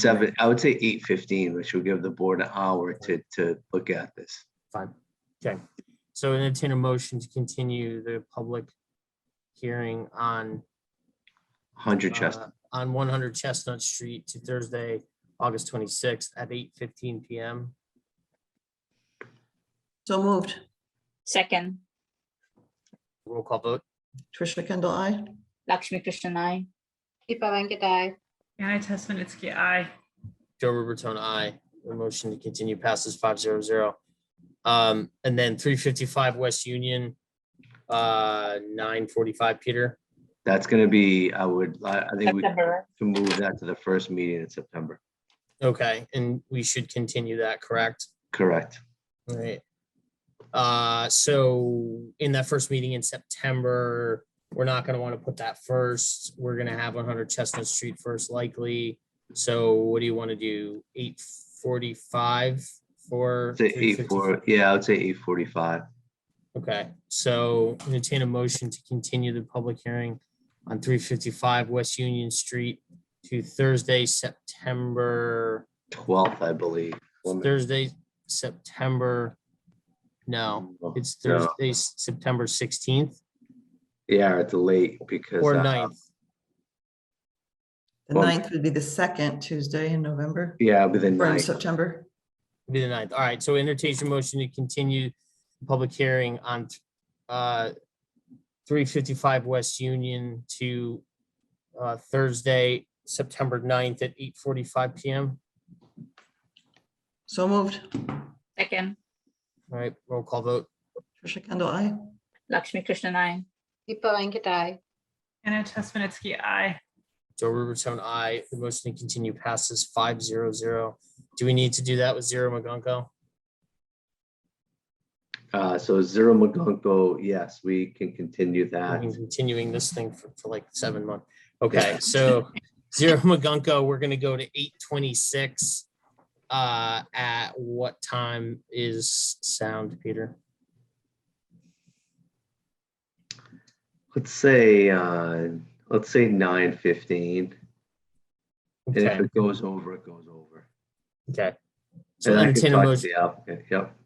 seven, I would say eight fifteen, which will give the board an hour to, to look at this. Fine, okay. So entertain a motion to continue the public hearing on. Hundred Chestnut. uh, On one hundred Chestnut Street to Thursday, August twenty-sixth at eight fifteen PM. So moved. Second, Roll call vote. Trisha Kendall, I. Lakshmi Krishnan, I. Deepa Venkat, aye. Anna Tesmanitsky, aye. Joe Ruberton, I. The motion to continue passes five zero zero. Um, and then three fifty-five West Union, uh, nine forty-five, Peter. That's gonna be, I would, I I think we can September. move that to the first meeting in September. Okay, and we should continue that, correct? Correct. Right. Uh, so in that first meeting in September, we're not gonna wanna put that first. We're gonna have one hundred Chestnut Street first likely. So what do you wanna do? Eight forty-five for? Say eight 3:55? four, yeah, I would say eight forty-five. Okay, so entertain a motion to continue the public hearing on three fifty-five West Union Street to Thursday, September, Twelfth, I believe. Woman- Thursday, September. No, it's No. Thursday, S- September sixteenth Yeah, it's late because. or uh, 9th. The Well- ninth would be the second Tuesday in November, Yeah, within or in nine. September. It'll be the ninth. All right, so entertain your motion to continue the public hearing on uh three fifty-five West Union to uh Thursday, September 9th at eight forty-five PM. So moved. Second, All right, roll call vote. Trisha Kendall, I. Lakshmi Krishnan, I. Deepa Venkat, aye. Anna Tesmanitsky, aye. Joe Ruberton, I. The motion to continue passes five zero zero. Do we need to do that with Zero McGonko? Uh, so Zero McGonko, yes, we can continue We've that. been Continuing this thing for, for like seven months. Okay, so Zero McGonko, we're gonna go to eight twenty-six. Uh, at what time is sound, Peter? Let's say, uh, let's say nine fifteen. And if Okay, it goes over, it goes over. okay. So And I can entertain a talk to motion, the applicant, Yep.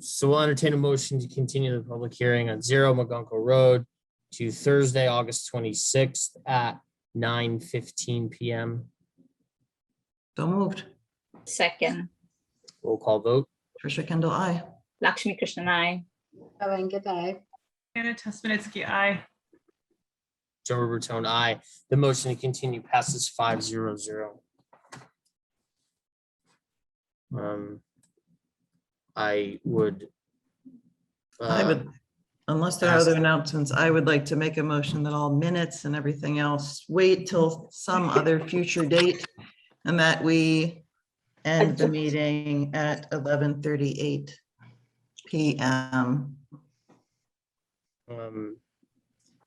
so we'll entertain a motion to continue the public hearing on Zero McGonko Road to Thursday, August twenty-sixth at nine fifteen PM. So moved. Second, Roll call vote. Trisha Kendall, I. Lakshmi Krishnan, I. Deepa Venkat, aye. Anna Tesmanitsky, aye. Joe Ruberton, aye. The motion to continue passes five zero zero. Um, I would. I uh, would, unless there are ask- other announcements, I would like to make a motion that all minutes and everything else wait till some other future date and that we end the meeting at eleven thirty-eight PM. um,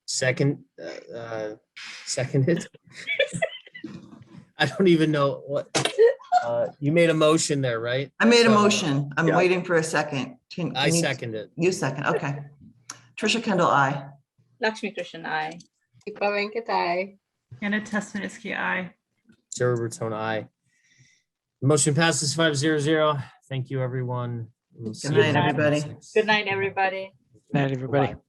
Second, uh, uh, seconded. I don't even know what, uh, you made a motion there, right? I made a So, motion. I'm yeah. waiting for a second. Can- I can you- second it. You second, okay. Trisha Kendall, I. Lakshmi Krishnan, I. Deepa Venkat, aye. Anna Tesmanitsky, aye. Joe Ruberton, aye. Motion passes five zero zero. Thank you, everyone. We'll see you night, on the everybody. 26th. Good night, everybody. Night, everybody. Bye-bye.